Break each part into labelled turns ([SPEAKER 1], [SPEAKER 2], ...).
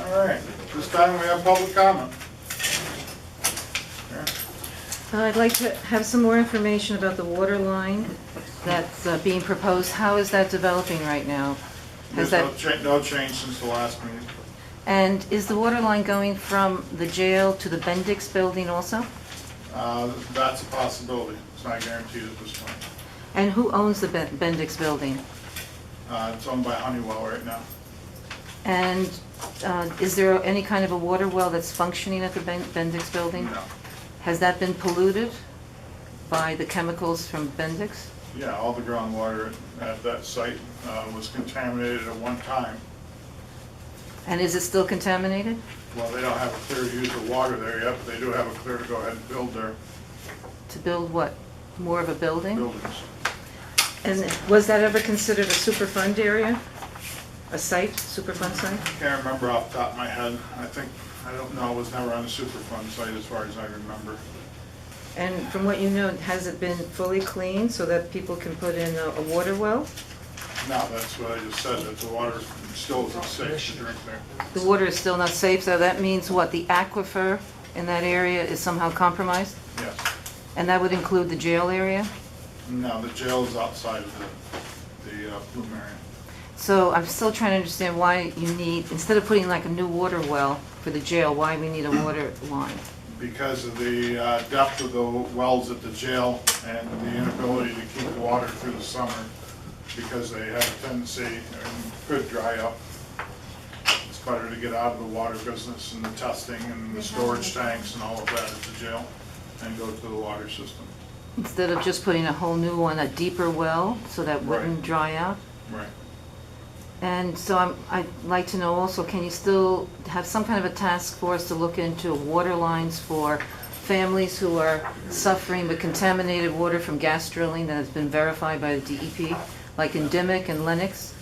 [SPEAKER 1] All right, this time we have public comment.
[SPEAKER 2] Uh, I'd like to have some more information about the water line that's uh, being proposed. How is that developing right now?
[SPEAKER 1] There's
[SPEAKER 2] Has that,
[SPEAKER 1] no cha- no change since the last meeting.
[SPEAKER 2] and is the water line going from the jail to the Bendix building also?
[SPEAKER 1] Uh, That's a possibility, it's not guaranteed at this point.
[SPEAKER 2] And who owns the Ben- Bendix building?
[SPEAKER 1] Uh, It's owned by Honeywell right now.
[SPEAKER 2] And uh, is there any kind of a water well that's functioning at the Ben- Bendix building?
[SPEAKER 1] No.
[SPEAKER 2] Has that been polluted by the chemicals from Bendix?
[SPEAKER 1] Yeah, all the groundwater at that site uh, was contaminated at one time.
[SPEAKER 2] And is it still contaminated?
[SPEAKER 1] Well, they don't have a clear use of water there yet, but they do have a clear to go ahead and build their
[SPEAKER 2] To build what? More of a building?
[SPEAKER 1] buildings.
[SPEAKER 2] And was that ever considered a Superfund area? A site, Superfund site?
[SPEAKER 1] Can't remember off the top of my head. I think, I don't know, it was never on the Superfund site as far as I remember.
[SPEAKER 2] And from what you know, has it been fully cleaned so that people can put in a a water well?
[SPEAKER 1] No, that's what I just said, that the water still isn't safe to drink there.
[SPEAKER 2] The water is still not safe, so that means what, the aquifer in that area is somehow compromised?
[SPEAKER 1] Yes.
[SPEAKER 2] And that would include the jail area?
[SPEAKER 1] No, the jail is outside of the, the uh, Blue Marion.
[SPEAKER 2] So I'm still trying to understand why you need, instead of putting like a new water well for the jail, why we need a water line?
[SPEAKER 1] Because of the uh, depth of the wells at the jail and the inability to keep water through the summer, because they have a tendency, and could dry up. It's better to get out of the water business and the testing and the storage tanks and all of that at the jail, and go to the water system.
[SPEAKER 2] Instead of just putting a whole new one, a deeper well, so that wouldn't
[SPEAKER 1] Right.
[SPEAKER 2] dry out?
[SPEAKER 1] Right.
[SPEAKER 2] And so I'm, I'd like to know also, can you still have some kind of a task force to look into water lines for families who are suffering with contaminated water from gas drilling that has been verified by the DEP? Like in Dimick and Lennox,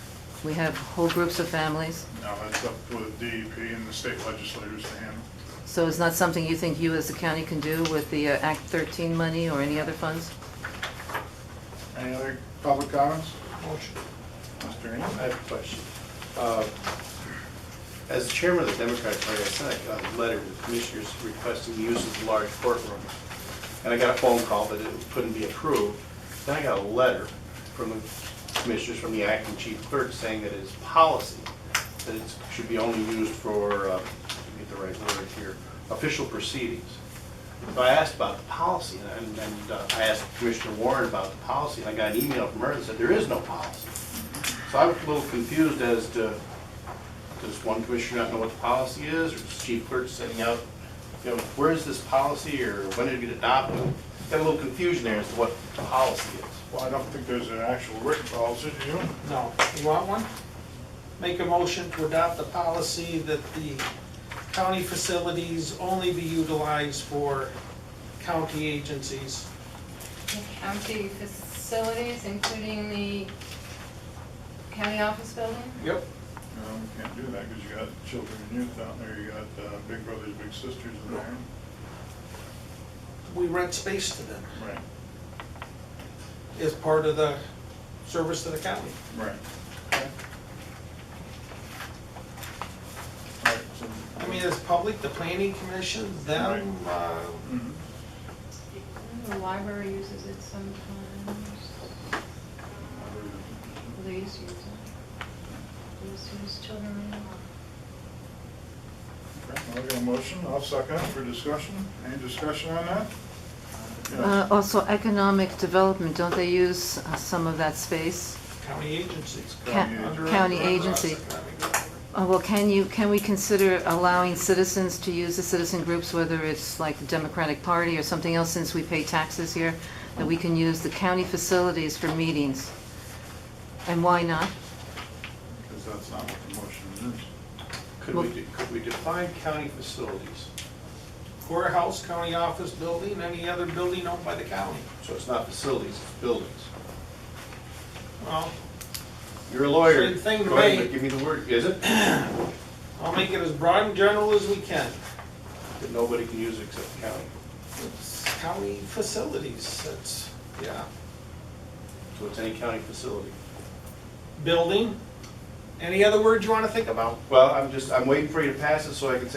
[SPEAKER 2] we have whole groups of families.
[SPEAKER 1] Now, that's up to the DEP and the state legislators to handle.
[SPEAKER 2] So it's not something you think you as the county can do with the uh, Act 13 money or any other funds?
[SPEAKER 1] Any other public comments?
[SPEAKER 3] Motion.
[SPEAKER 1] Mr. Ennis?
[SPEAKER 3] I have a question. Uh, As the chairman of the Democratic Party, I sent a letter to the commissioners requesting the use of the large courtroom. And I got a phone call that it couldn't be approved. Then I got a letter from the commissioners, from the acting chief clerk, saying that it is policy, that it should be only used for, uh, let me get the right word here, official proceedings. So I asked about the policy, and and, uh, I asked Commissioner Warren about the policy, and I got an email from her that said, there is no policy. So I was a little confused as to, does one commissioner not know what the policy is, or is chief clerk setting out, you know, where is this policy, or when did it get adopted? Got a little confusion there as to what the policy is.
[SPEAKER 1] Well, I don't think there's an actual written policy, do you?
[SPEAKER 4] No. You want one? Make a motion to adopt the policy that the county facilities only be utilized for county agencies.
[SPEAKER 5] The county facilities, including the county office building?
[SPEAKER 4] Yep.
[SPEAKER 1] No, we can't do that because you got children and youth out there, you got uh, big brothers, big sisters in there.
[SPEAKER 4] We rent space to them
[SPEAKER 1] Right,
[SPEAKER 4] as part of the service to the county.
[SPEAKER 1] right. Okay. All right, so-
[SPEAKER 4] I mean, it's public, the planning commission, them, uh,
[SPEAKER 1] Mhm.
[SPEAKER 5] The library uses it sometimes, police use it, police use children.
[SPEAKER 1] Okay, I'll get a motion, I'll second it for discussion. Any discussion on that?
[SPEAKER 2] Uh,
[SPEAKER 1] Yes.
[SPEAKER 2] Also, economic development, don't they use uh, some of that space?
[SPEAKER 4] county agencies.
[SPEAKER 1] County
[SPEAKER 2] Ca-
[SPEAKER 1] agent.
[SPEAKER 2] County
[SPEAKER 4] Under us,
[SPEAKER 2] agency.
[SPEAKER 4] economic development.
[SPEAKER 2] Uh, Well, can you, can we consider allowing citizens to use the citizen groups, whether it's like the Democratic Party or something else, since we pay taxes here, that we can use the county facilities for meetings? And why not?
[SPEAKER 1] Because that's not what the motion is.
[SPEAKER 3] Could we, de- could we define county facilities,
[SPEAKER 4] Courthouse, county office building, any other building owned by the county.
[SPEAKER 3] so it's not facilities, it's buildings?
[SPEAKER 4] Well,
[SPEAKER 3] You're a lawyer.
[SPEAKER 4] Same thing to
[SPEAKER 3] Go ahead,
[SPEAKER 4] me.
[SPEAKER 3] but Give me the word, is it?
[SPEAKER 4] I'll make it as broad and general as we can.
[SPEAKER 3] That nobody can use it except the county,
[SPEAKER 4] It's county facilities, that's, yeah,
[SPEAKER 3] so it's any county facility.
[SPEAKER 4] building, Any other words you want to think about?
[SPEAKER 3] Well, I'm just, I'm waiting for you to pass it so I can say